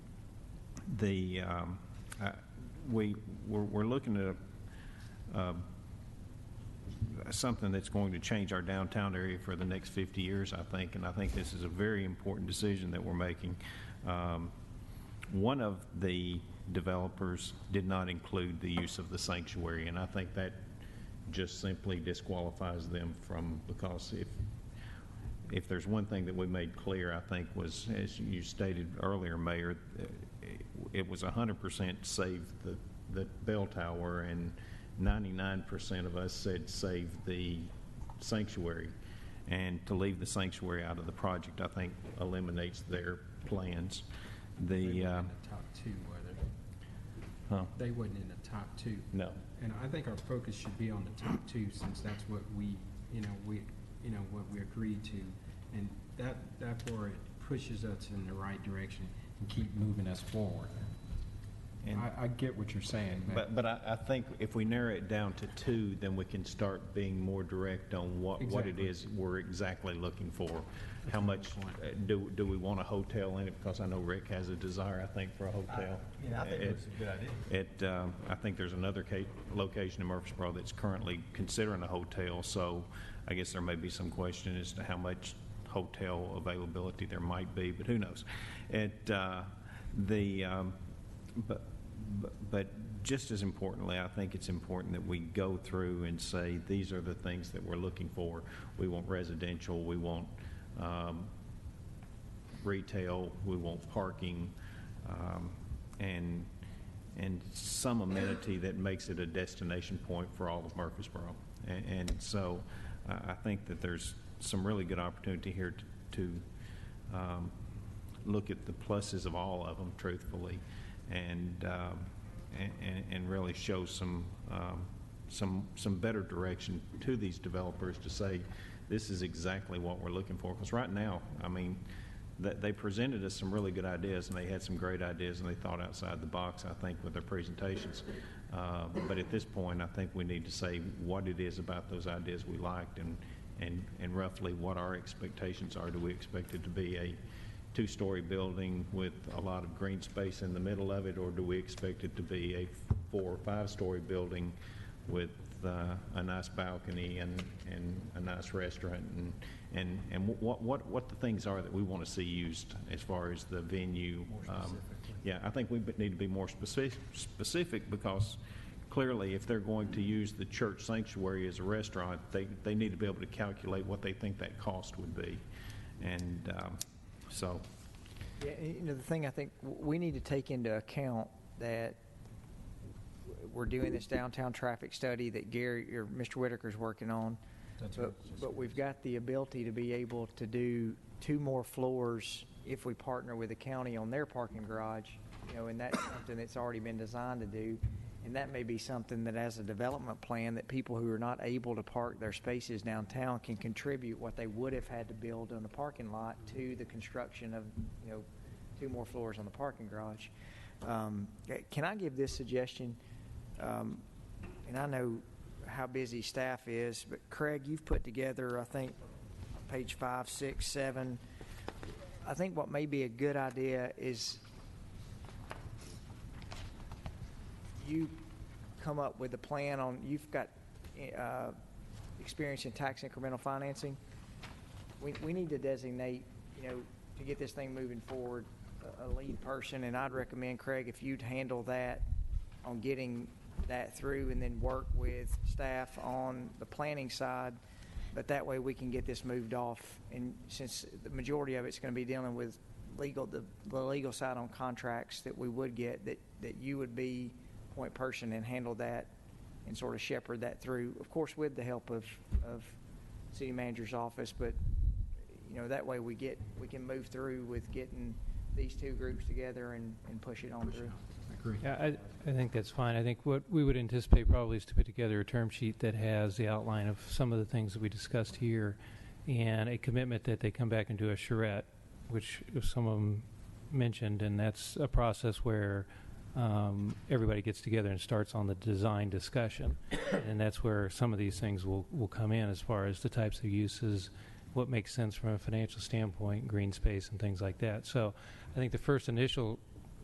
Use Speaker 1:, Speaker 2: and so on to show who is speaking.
Speaker 1: the, um, I- we, we're we're looking at um, something that's going to change our downtown area for the next 50 years, I think, and I think this is a very important decision that we're making. Um, One of the developers did not include the use of the sanctuary, and I think that just simply disqualifies them from, because if, if there's one thing that we made clear, I think, was, as you stated earlier, Mayor, uh, it was 100% save the, the bell tower, and 99% of us said save the sanctuary. And to leave the sanctuary out of the project, I think, eliminates their plans. The,
Speaker 2: They
Speaker 1: uh,
Speaker 2: weren't in the top two, were
Speaker 1: huh,
Speaker 2: they? They wasn't in the top two.
Speaker 1: no,
Speaker 2: And I think our focus should be on the top two, since that's what we, you know, we, you know, what we agreed to. And that, that's where it pushes us in the right direction and keep moving us forward.
Speaker 1: And-
Speaker 2: I, I get what you're saying,
Speaker 1: But,
Speaker 2: but
Speaker 1: but I, I think if we narrow it down to two, then we can start being more direct on what, what it
Speaker 2: Exactly.
Speaker 1: is we're exactly looking for. How
Speaker 2: a good
Speaker 1: much,
Speaker 2: point.
Speaker 1: uh, do, do we want a hotel in it? Because I know Rick has a desire, I think, for a hotel.
Speaker 3: Yeah, I think
Speaker 1: It-
Speaker 3: it was a good idea.
Speaker 1: It, um, I think there's another ca- location in Murfreesboro that's currently considering a hotel, so I guess there may be some question as to how much hotel availability there might be, but who knows? It, uh, the, um, but, but- but just as importantly, I think it's important that we go through and say, these are the things that we're looking for. We want residential, we want, um, retail, we want parking, um, and, and some amenity that makes it a destination point for all of Murfreesboro. A- And so I I think that there's some really good opportunity here to to, um, look at the pluses of all of them truthfully and, um, and- and and really show some, um, some, some better direction to these developers to say, this is exactly what we're looking for. Because right now, I mean, that they presented us some really good ideas, and they had some great ideas, and they thought outside the box, I think, with their presentations. Uh, But at this point, I think we need to say what it is about those ideas we liked and, and and roughly what our expectations are. Do we expect it to be a two-story building with a lot of green space in the middle of it, or do we expect it to be a four or five-story building with uh, a nice balcony and, and a nice restaurant and, and, and what, what, what the things are that we want to see used as far as the venue.
Speaker 3: More
Speaker 1: um,
Speaker 3: specifically.
Speaker 1: Yeah, I think we b- need to be more specific, specific because clearly if they're going to use the church sanctuary as a restaurant, they, they need to be able to calculate what they think that cost would be. And um, so,
Speaker 4: Yeah, and, you know, the thing I think w- we need to take into account that w- we're doing this downtown traffic study that Gary, or Mr. Whitaker's working on.
Speaker 2: That's what I
Speaker 4: But,
Speaker 2: was just
Speaker 4: but we've got the ability to be able to do two more floors if we partner with the county on their parking garage, you know, and that's something that's already been designed to do. And that may be something that as a development plan, that people who are not able to park their spaces downtown can contribute what they would have had to build on the parking lot to the construction of, you know, two more floors on the parking garage. Um, eh, Can I give this suggestion? Um, And I know how busy staff is, but Craig, you've put together, I think, page five, six, seven. I think what may be a good idea is you come up with a plan on, you've got uh, experience in tax incremental financing. We, we need to designate, you know, to get this thing moving forward, a- a lead person, and I'd recommend, Craig, if you'd handle that on getting that through and then work with staff on the planning side, but that way we can get this moved off. And since the majority of it's going to be dealing with legal, the, the legal side on contracts that we would get, that, that you would be point person and handle that and sort of shepherd that through, of course, with the help of, of city manager's office, but, you know, that way we get, we can move through with getting these two groups together and, and push it on through.
Speaker 2: I agree.
Speaker 5: Yeah, I, I think that's fine. I think what we would anticipate probably is to put together a term sheet that has the outline of some of the things that we discussed here and a commitment that they come back and do a charrette, which some of them mentioned, and that's a process where um, everybody gets together and starts on the design discussion. and that's where some of these things will, will come in as far as the types of uses, what makes sense from a financial standpoint, green space, and things like that. So I think the first initial